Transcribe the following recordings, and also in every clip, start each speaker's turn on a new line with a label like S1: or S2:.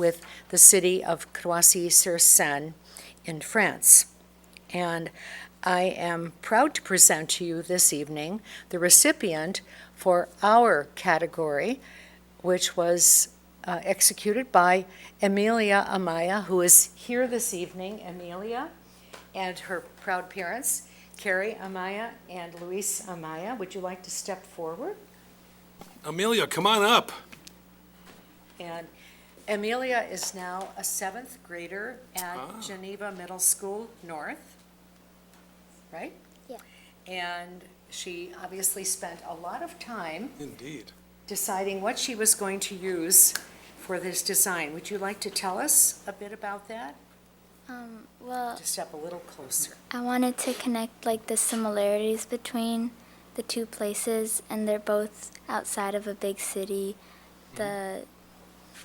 S1: with the city of Croissy-sur-Seine in France. And I am proud to present to you this evening the recipient for our category, which was uh, executed by Emilia Amaya, who is here this evening. Emilia and her proud parents, Carrie Amaya and Luis Amaya. Would you like to step forward?
S2: Amelia, come on up.
S1: And Amelia is now a seventh grader
S2: Ah.
S1: at Geneva Middle School North, right?
S3: Yeah.
S1: And she obviously spent a lot of time
S2: Indeed.
S1: deciding what she was going to use for this design. Would you like to tell us a bit about that?
S3: Um, well,
S1: Just step a little closer.
S3: I wanted to connect like the similarities between the two places, and they're both outside of a big city. The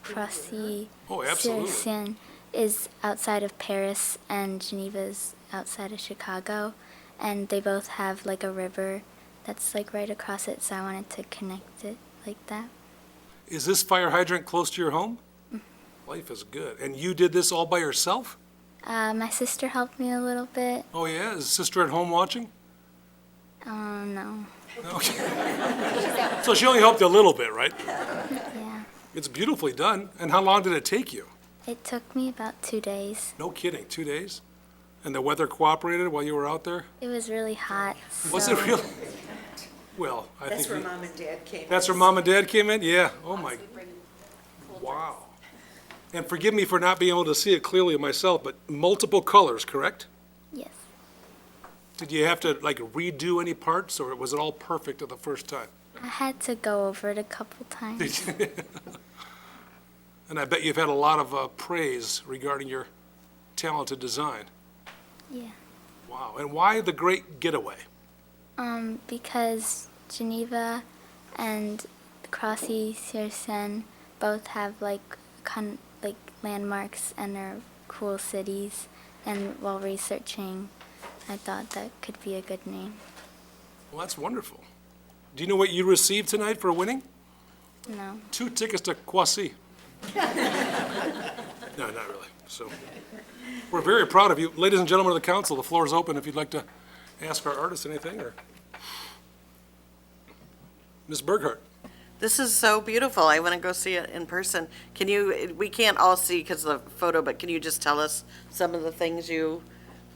S3: Croissy
S2: Mm-hmm. Oh,
S3: sur
S2: absolutely.
S3: Seine is outside of Paris, and Geneva's outside of Chicago, and they both have like a river that's like right across it. So I wanted to connect it like that.
S2: Is this fire hydrant close to your home? Life is good. And you did this all by yourself?
S3: Uh, my sister helped me a little bit.
S2: Oh, yeah? Is sister at home watching?
S3: Oh no,
S2: Okay. So she only helped you a little bit, right?
S3: yeah.
S2: It's beautifully done. And how long did it take you?
S3: It took me about two days.
S2: No kidding, two days? And the weather cooperated while you were out there?
S3: It was really hot.
S2: Was
S3: so-
S2: it really? Well, I think,
S1: That's where
S2: we-
S1: mom and dad came.
S2: that's where mom and dad came in? Yeah, oh my. Wow. And forgive me for not being able to see it clearly myself, but multiple colors, correct?
S3: Yes.
S2: Did you have to like redo any parts, or was it all perfect at the first time?
S3: I had to go over it a couple times.
S2: And I bet you've had a lot of uh, praise regarding your talented design.
S3: yeah.
S2: Wow, and why the great getaway?
S3: Um, because Geneva and Crossy Searsen both have like con- like landmarks and are cool cities. And while researching, I thought that could be a good name.
S2: Well, that's wonderful. Do you know what you received tonight for winning?
S3: No.
S2: Two tickets to Kwasi. No, not really, so. We're very proud of you. Ladies and gentlemen of the council, the floor is open if you'd like to ask our artist anything, or... Ms. Burkhart?
S4: This is so beautiful. I want to go see it in person. Can you, we can't all see because of the photo, but can you just tell us some of the things you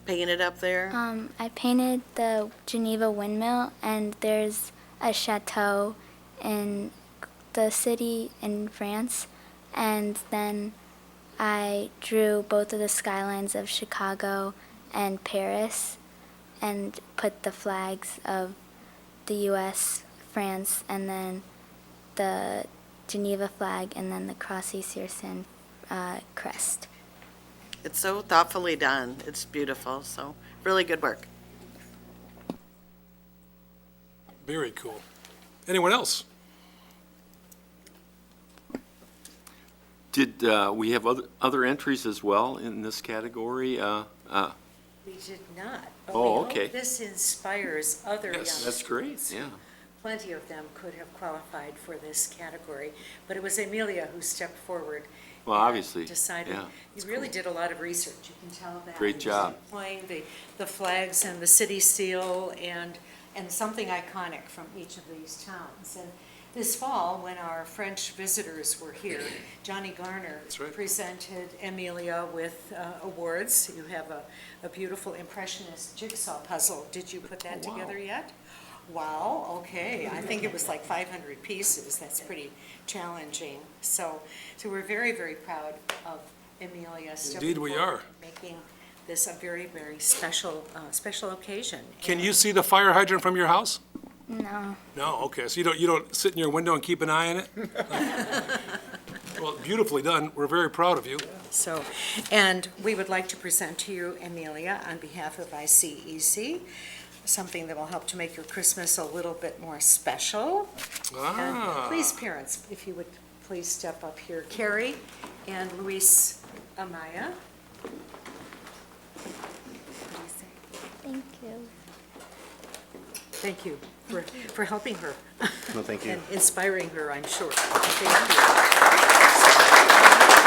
S4: painted up there?
S3: Um, I painted the Geneva windmill, and there's a chateau in the city in France. And then I drew both of the skylines of Chicago and Paris and put the flags of the US, France, and then the Geneva flag, and then the Crossy Searsen uh, crest.
S4: It's so thoughtfully done. It's beautiful, so really good work.
S2: Very cool. Anyone else?
S5: Did, uh, we have other, other entries as well in this category? Uh, uh,
S1: We did not. but
S5: Oh,
S1: we hope
S5: okay.
S1: This inspires other young
S2: Yes,
S5: That's great,
S1: students.
S5: yeah.
S1: Plenty of them could have qualified for this category, but it was Amelia who stepped forward.
S5: Well,
S1: and
S5: obviously,
S1: Decided,
S5: yeah.
S1: you really did a lot of research, you can tell that.
S5: Great
S1: He was
S5: job.
S1: Employing the, the flags and the city seal and, and something iconic from each of these towns. And this fall, when our French visitors were here, Johnny Garner
S2: That's right.
S1: presented Amelia with uh, awards. You have a, a beautiful impressionist jigsaw puzzle. Did you put that
S5: Oh, wow.
S1: together yet? Wow, okay. I think it was like 500 pieces. That's pretty challenging. So, so we're very, very proud of Amelia stepping
S2: Indeed we
S1: forward
S2: are.
S1: and Making this a very, very special, uh, special occasion.
S2: Can you see the fire hydrant from your house?
S3: No.
S2: No, okay, so you don't, you don't sit in your window and keep an eye on it? Well, beautifully done, we're very proud of you.
S1: So, and we would like to present to you, Amelia, on behalf of ICEC, something that will help to make your Christmas a little bit more special. And
S2: Ah,
S1: Please, parents, if you would please step up here. Carrie and Luis Amaya.
S3: Thank you.
S1: Thank you for, for helping her
S6: No, thank you.
S1: and inspiring her, I'm sure. Thank you.